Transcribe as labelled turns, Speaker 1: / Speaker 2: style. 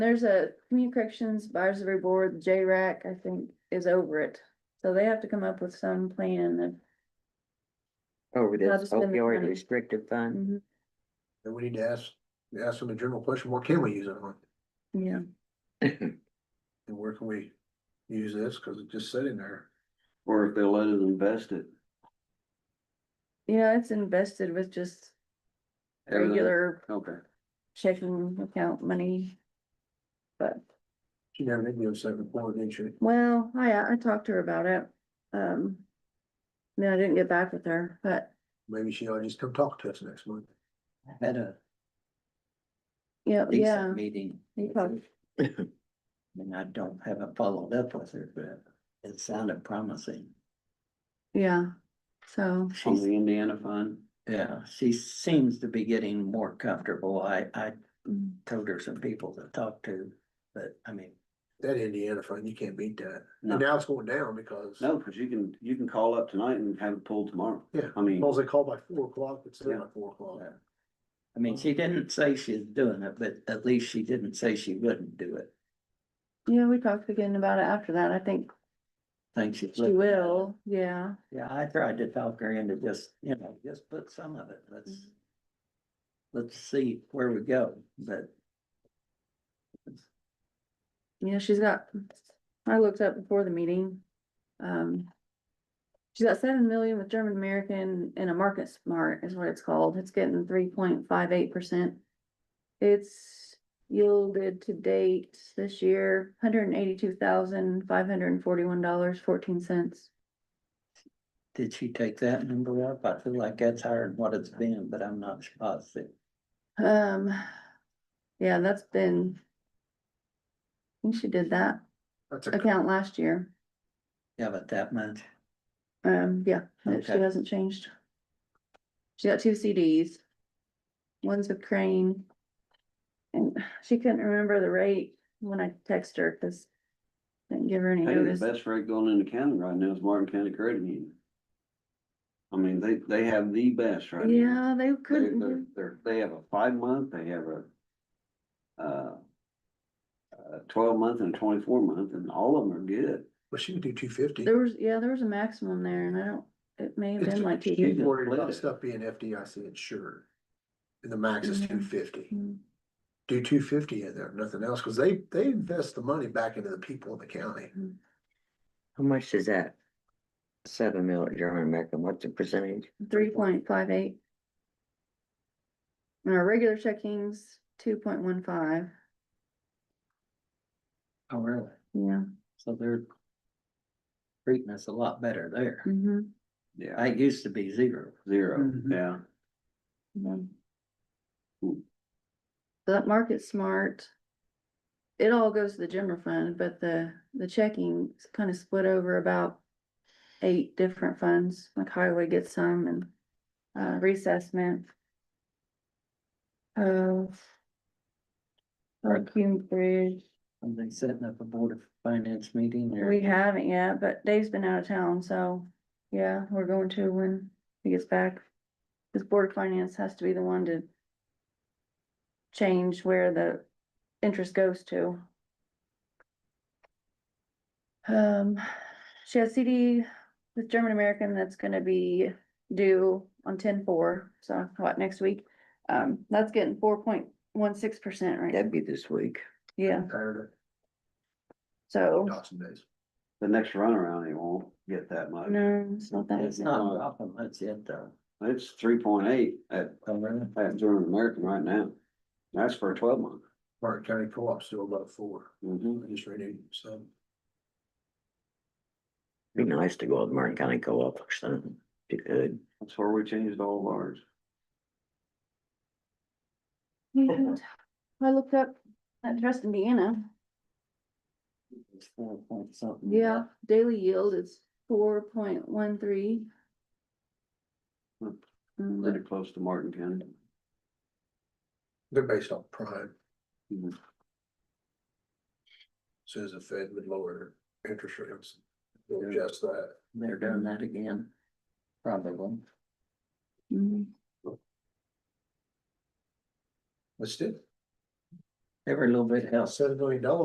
Speaker 1: There's a community corrections advisory board, J-RAC, I think, is over it. So they have to come up with some plan of.
Speaker 2: over
Speaker 1: How
Speaker 2: this
Speaker 1: to spend the
Speaker 2: opioid
Speaker 1: money.
Speaker 2: restrictive fund.
Speaker 1: Mhm,
Speaker 3: And we need to ask, ask them a general question, what can we use it on?
Speaker 1: Yeah,
Speaker 3: And where can we use this? Cause it's just sitting there.
Speaker 4: Or if they let us invest it.
Speaker 1: yeah, it's invested with just
Speaker 4: everything-
Speaker 1: regular
Speaker 4: Okay,
Speaker 1: checking account money. But,
Speaker 3: She never did give us that report, did she?
Speaker 1: well, I, I talked to her about it. Um, then I didn't get back with her, but,
Speaker 3: Maybe she ought to just come talk to us next month.
Speaker 2: Had a
Speaker 1: yeah, yeah.
Speaker 2: decent meeting.
Speaker 1: You
Speaker 2: with
Speaker 1: probably-
Speaker 2: her. I mean, I don't, haven't followed up with her, but it sounded promising.
Speaker 1: Yeah, so,
Speaker 4: on
Speaker 2: She's,
Speaker 4: the Indiana fund,
Speaker 2: yeah, she seems to be getting more comfortable. I, I
Speaker 1: mm,
Speaker 2: told her some people to talk to, but I mean,
Speaker 3: That Indiana fund, you can't beat that.
Speaker 4: No.
Speaker 3: And now it's going down because,
Speaker 4: no, cause you can, you can call up tonight and have it pulled tomorrow.
Speaker 3: Yeah.
Speaker 4: I mean,
Speaker 3: well, they call by four o'clock, it's in
Speaker 4: Yeah.
Speaker 3: by four o'clock.
Speaker 2: Yeah. I mean, she didn't say she's doing it, but at least she didn't say she wouldn't do it.
Speaker 1: yeah, we talked again about it after that. I think
Speaker 2: Think she's.
Speaker 1: she
Speaker 2: looking at it.
Speaker 1: will, yeah.
Speaker 2: Yeah, I tried to talk her into just, you know, just put some of it, let's. Let's see where we go, but
Speaker 1: Yeah, she's got, I looked up before the meeting. Um. She's got seven million with German American and a market smart is what it's called. It's getting three point five eight percent. It's yielded to date this year, hundred and eighty-two thousand, five hundred and forty-one dollars, fourteen cents.
Speaker 2: did she take that number up? I feel like that's higher than what it's been, but I'm not positive.
Speaker 1: Um, yeah, that's been. I think she did that
Speaker 3: That's a,
Speaker 1: account last year.
Speaker 2: Yeah, but that much,
Speaker 1: Um, yeah, that she
Speaker 2: Okay.
Speaker 1: hasn't changed. She got two CDs. One's with Crane. And she couldn't remember the rate when I text her, cause. I Didn't give her any
Speaker 4: hey, the
Speaker 1: notice.
Speaker 4: best rate going into county right now is Martin County Credit Union. I mean, they, they have the best right now.
Speaker 1: Yeah, they
Speaker 4: They,
Speaker 1: couldn't,
Speaker 4: they're,
Speaker 1: do-
Speaker 4: they're, they have a five month, they have a, uh, uh, twelve month and twenty-four month, and all of them are good.
Speaker 3: but she can do two fifty.
Speaker 1: there was, yeah, there was a maximum there and I don't, it may have
Speaker 3: It's
Speaker 1: been
Speaker 3: a-
Speaker 1: like.
Speaker 3: She's
Speaker 1: two-
Speaker 3: worried
Speaker 4: Yeah.
Speaker 3: about stuff being FDIC insured. And the max is
Speaker 1: Mhm.
Speaker 3: two fifty.
Speaker 1: Mm,
Speaker 3: Do two fifty in there, nothing else, cause they, they invest the money back into the people in the county.
Speaker 5: How much is that? Seven mil at German American, what's the percentage?
Speaker 1: Three point five eight. And our regular checking's two point one five,
Speaker 2: oh really?
Speaker 1: yeah.
Speaker 2: So they're. Treating us a lot better there.
Speaker 1: mhm,
Speaker 4: Yeah,
Speaker 2: I used to be zero.
Speaker 4: zero,
Speaker 1: Mm-hmm.
Speaker 2: Mhm.
Speaker 4: yeah.
Speaker 1: yeah.
Speaker 4: Ooh.
Speaker 1: So That market smart. It all goes to the general fund, but the, the checking is kind of split over about eight different funds, like highway gets some and, uh, reassessment. Of.
Speaker 2: Right.
Speaker 1: Hume Bridge,
Speaker 2: Are they setting up a board of finance meeting or?
Speaker 1: we haven't yet, but Dave's been out of town, so, yeah, we're going to when he gets back. This Board of Finance has to be the one to change where the interest goes to. Um, she has CD with German American that's gonna be due on ten four, so what, next week? Um, that's getting four point one six percent right now,
Speaker 5: That'd be this week.
Speaker 1: yeah,
Speaker 3: Tired
Speaker 1: so,
Speaker 3: of Dawson days.
Speaker 4: The next runaround, he won't get that much.
Speaker 1: no, it's not that.
Speaker 2: It's
Speaker 1: easy.
Speaker 2: not dropping much yet though.
Speaker 4: It's three point eight at,
Speaker 2: Oh, really?
Speaker 4: at German American right now. That's for a twelve month.
Speaker 3: Martin County Co-op's still about four,
Speaker 5: Mm-hmm.
Speaker 4: Mhm.
Speaker 3: I just renewed, so.
Speaker 5: Be nice to go out to Martin County Co-op or something, if you could.
Speaker 4: That's where we changed all of ours.
Speaker 1: Yeah, I looked up that trust Indiana.
Speaker 2: It's four point something.
Speaker 1: Yeah, daily yield is four point one three.
Speaker 4: Hmm. Pretty close to Martin County.
Speaker 3: They're based on prime.
Speaker 4: Mhm.
Speaker 3: Says the Fed would lower interest rates, They'll adjust that.
Speaker 2: They're doing that again, probably.
Speaker 1: Mhm.
Speaker 3: Let's do. it.
Speaker 2: They were a little bit helped.
Speaker 3: seven million dollars